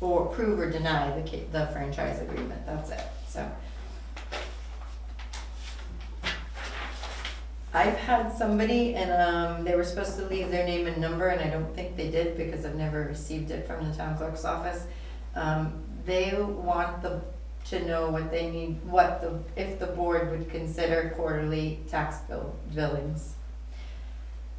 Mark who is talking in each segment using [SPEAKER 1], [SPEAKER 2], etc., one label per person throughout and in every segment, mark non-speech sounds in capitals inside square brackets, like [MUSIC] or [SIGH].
[SPEAKER 1] or approve or deny the, ca- the franchise agreement, that's it, so. I've had somebody and, um, they were supposed to leave their name and number and I don't think they did because I've never received it from the town clerk's office. Um, they want the, to know what they need, what the, if the board would consider quarterly tax bill, billings.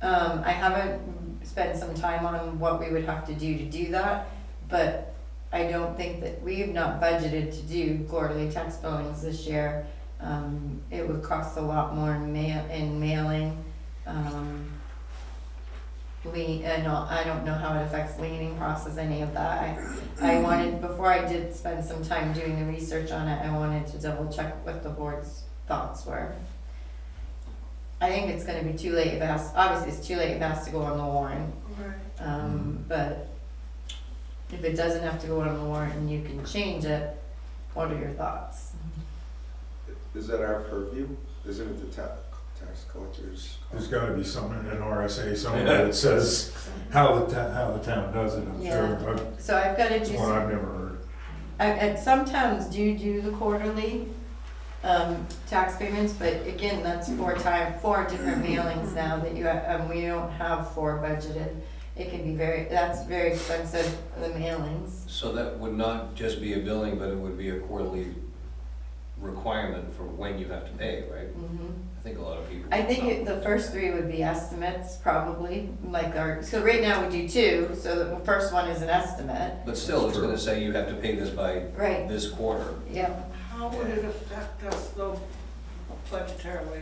[SPEAKER 1] Um, I haven't spent some time on what we would have to do to do that, but I don't think that, we have not budgeted to do quarterly tax billings this year. Um, it would cost a lot more in mail, in mailing, um. We, and I don't know how it affects leaning process, any of that, I I wanted, before I did spend some time doing the research on it, I wanted to double check what the board's thoughts were. I think it's gonna be too late if it has, obviously it's too late if it has to go on the warrant,
[SPEAKER 2] Right.
[SPEAKER 1] um, but if it doesn't have to go on the warrant and you can change it, what are your thoughts?
[SPEAKER 3] Is that our purview? Isn't it the ta- tax collectors?
[SPEAKER 4] There's gotta be something in an RSA somewhere that says how the town, how the town does it, I'm sure,
[SPEAKER 1] Yeah.
[SPEAKER 4] but
[SPEAKER 1] So I've gotta do
[SPEAKER 4] it's
[SPEAKER 1] some.
[SPEAKER 4] one I've never heard.
[SPEAKER 1] And, and some towns do do the quarterly, um, tax payments, but again, that's four time, four different mailings now that you, have- um, we don't have four budgeted. It can be very, that's very expensive, the mailings.
[SPEAKER 5] So that would not just be a billing, but it would be a quarterly requirement for when you have to pay, right?
[SPEAKER 1] Mhm.
[SPEAKER 5] I think a lot of people.
[SPEAKER 1] I think it- the first three would be estimates, probably, like our, so right now we do two, so the first one is an estimate.
[SPEAKER 5] But still, it's gonna say you have to pay this by
[SPEAKER 1] Right,
[SPEAKER 5] this quarter.
[SPEAKER 1] yeah,
[SPEAKER 2] How would it affect us though budgetarily?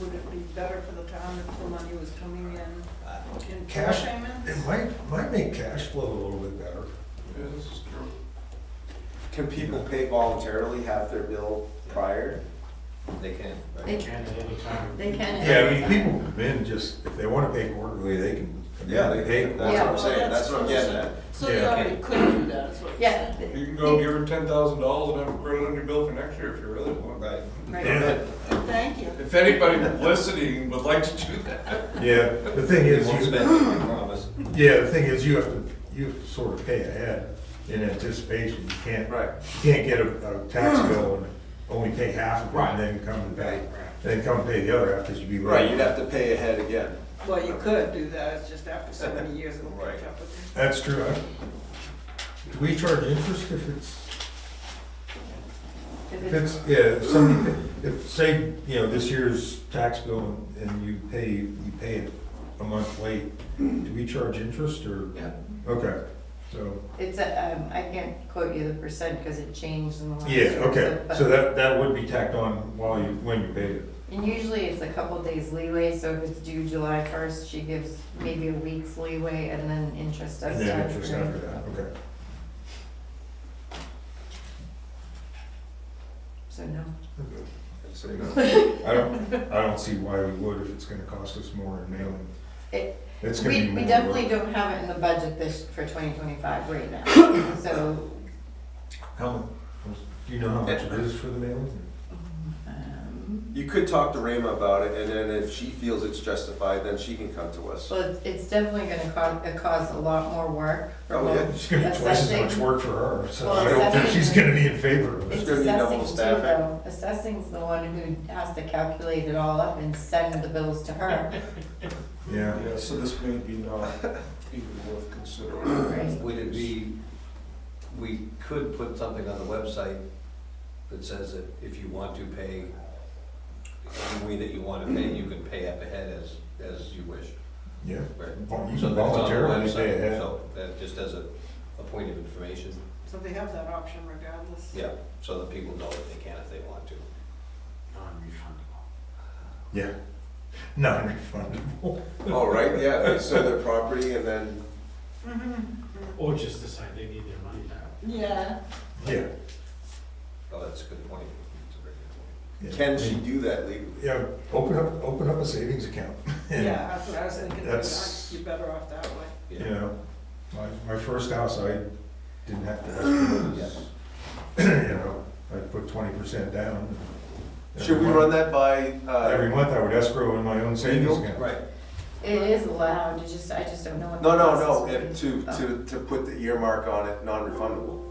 [SPEAKER 2] Would it be better for the town if the money was coming in
[SPEAKER 5] I don't-
[SPEAKER 2] in
[SPEAKER 4] Cash?
[SPEAKER 2] cash payments?
[SPEAKER 4] It might, might make cash flow a little bit better.
[SPEAKER 3] Yeah, this is true. Can people pay voluntarily half their bill prior?
[SPEAKER 5] They can, right?
[SPEAKER 1] they,
[SPEAKER 6] Can at any time.
[SPEAKER 1] they can.
[SPEAKER 4] Yeah, I mean, people come in just, if they wanna pay quarterly, they can. come in,
[SPEAKER 3] They-
[SPEAKER 4] They,
[SPEAKER 3] That's what
[SPEAKER 1] Yeah.
[SPEAKER 3] I'm saying, that's what I'm getting at.
[SPEAKER 2] So they
[SPEAKER 4] Yeah.
[SPEAKER 2] already could do that, is what you're
[SPEAKER 1] Yeah,
[SPEAKER 2] saying?
[SPEAKER 7] You can go give her ten thousand dollars and have it credit on your bill for next year if you really want.
[SPEAKER 3] Right.
[SPEAKER 1] right.
[SPEAKER 4] yeah,
[SPEAKER 2] Thank you.
[SPEAKER 7] If anybody listening would like to do that.
[SPEAKER 4] yeah, the thing
[SPEAKER 5] They
[SPEAKER 4] is,
[SPEAKER 5] won't
[SPEAKER 4] you,
[SPEAKER 5] spend, it, I promise.
[SPEAKER 4] yeah, the thing is, you have to, you have to sort of pay ahead in anticipation, you can't.
[SPEAKER 3] Right.
[SPEAKER 4] You can't get a, a tax bill and only pay half of it and then come and pay, then come pay the other half, cause you'd be right.
[SPEAKER 3] Right, you'd have to pay ahead again.
[SPEAKER 2] Well, you could do that, it's just after so many years it'll catch up with you.
[SPEAKER 4] That's true. I- Do we charge interest if it's,
[SPEAKER 1] If
[SPEAKER 4] if
[SPEAKER 1] it's-
[SPEAKER 4] it's, yeah, if somebody, if, say, you know, this year's tax bill and you pay, you pay it a month late, do we charge interest or?
[SPEAKER 3] Yeah.
[SPEAKER 4] Okay, so,
[SPEAKER 1] It's a, um, I can't quote you the percent because it changed in the last.
[SPEAKER 4] yeah, okay,
[SPEAKER 1] but-
[SPEAKER 4] so that, that would be tacked on while you, when you paid it.
[SPEAKER 1] And usually it's a couple days leeway, so if it's due July first, she gives maybe a week's leeway and then interest does
[SPEAKER 4] And
[SPEAKER 1] start.
[SPEAKER 4] then interest
[SPEAKER 1] accruing.
[SPEAKER 4] after that, okay.
[SPEAKER 1] So no.
[SPEAKER 3] So, you know,
[SPEAKER 4] I don't, I don't see why we would if it's gonna cost us more in mailing.
[SPEAKER 1] It-
[SPEAKER 4] It's gonna be
[SPEAKER 1] We,
[SPEAKER 4] more.
[SPEAKER 1] we
[SPEAKER 4] work.
[SPEAKER 1] definitely don't have it in the budget this, for twenty twenty-five right now,
[SPEAKER 4] [COUGHS]
[SPEAKER 1] so,
[SPEAKER 4] How, mu- do you know how much it is for the mailing?
[SPEAKER 1] um,
[SPEAKER 3] You could talk to Rayma about it, and then if she feels it's justified, then she can come to us.
[SPEAKER 1] well, it's- it's definitely gonna cause, cause a lot more work. for
[SPEAKER 3] Oh, yeah.
[SPEAKER 1] both.
[SPEAKER 4] It's gonna be twice as much
[SPEAKER 1] Assessing.
[SPEAKER 4] work for her, so
[SPEAKER 1] Well,
[SPEAKER 4] I don't think
[SPEAKER 1] assessing.
[SPEAKER 4] she's gonna be in favor of it.
[SPEAKER 1] It's
[SPEAKER 3] gonna be
[SPEAKER 1] assessing
[SPEAKER 3] double
[SPEAKER 1] too,
[SPEAKER 3] staffing.
[SPEAKER 1] though. Assessing's the one who has to calculate it all up and send the bills to her.
[SPEAKER 3] [COUGHS]
[SPEAKER 4] Yeah,
[SPEAKER 7] Yeah, so this may be not even worth considering.
[SPEAKER 5] Would it be, we could put something on the website that says that if you want to pay any way that you wanna pay, you can pay up ahead as, as you wish,
[SPEAKER 4] yeah.
[SPEAKER 5] right?
[SPEAKER 4] Vol- You
[SPEAKER 5] So
[SPEAKER 4] can
[SPEAKER 5] that's on the
[SPEAKER 4] voluntarily pay
[SPEAKER 5] website,
[SPEAKER 4] ahead.
[SPEAKER 5] So that just as a, a point of information,
[SPEAKER 2] So they have that option regardless.
[SPEAKER 5] yeah, so that people know that they can if they want to.
[SPEAKER 6] Non-refundable.
[SPEAKER 4] Yeah. Non-refundable.
[SPEAKER 3] Oh, right, yeah, they sell their property and then,
[SPEAKER 2] Mhm.
[SPEAKER 6] Or just decide they need their money back.
[SPEAKER 2] Yeah.
[SPEAKER 4] Yeah.
[SPEAKER 5] Oh, that's a good point. That's a very good
[SPEAKER 4] yeah.
[SPEAKER 3] can she do that legally?
[SPEAKER 4] Yeah, open up, open up a savings account. [LAUGHS] and,
[SPEAKER 2] Yeah, that's what I was thinking, you're
[SPEAKER 4] That's-
[SPEAKER 2] you're better off that way.
[SPEAKER 4] You
[SPEAKER 5] point. Yeah.
[SPEAKER 4] know, my, my first house, I didn't have to ask for this. [CLEARS THROAT] You know, I put twenty percent down.
[SPEAKER 3] Should
[SPEAKER 4] Every
[SPEAKER 3] we
[SPEAKER 4] month-
[SPEAKER 3] run that by, uh,
[SPEAKER 4] Every month I would escrow in my own savings
[SPEAKER 3] Legal?
[SPEAKER 4] account.
[SPEAKER 5] Right,
[SPEAKER 1] It is allowed, you just, I just don't know what. the
[SPEAKER 3] No, no,
[SPEAKER 1] process
[SPEAKER 3] no,
[SPEAKER 1] would be.
[SPEAKER 3] if- to, to, to put the earmark on it, non-refundable.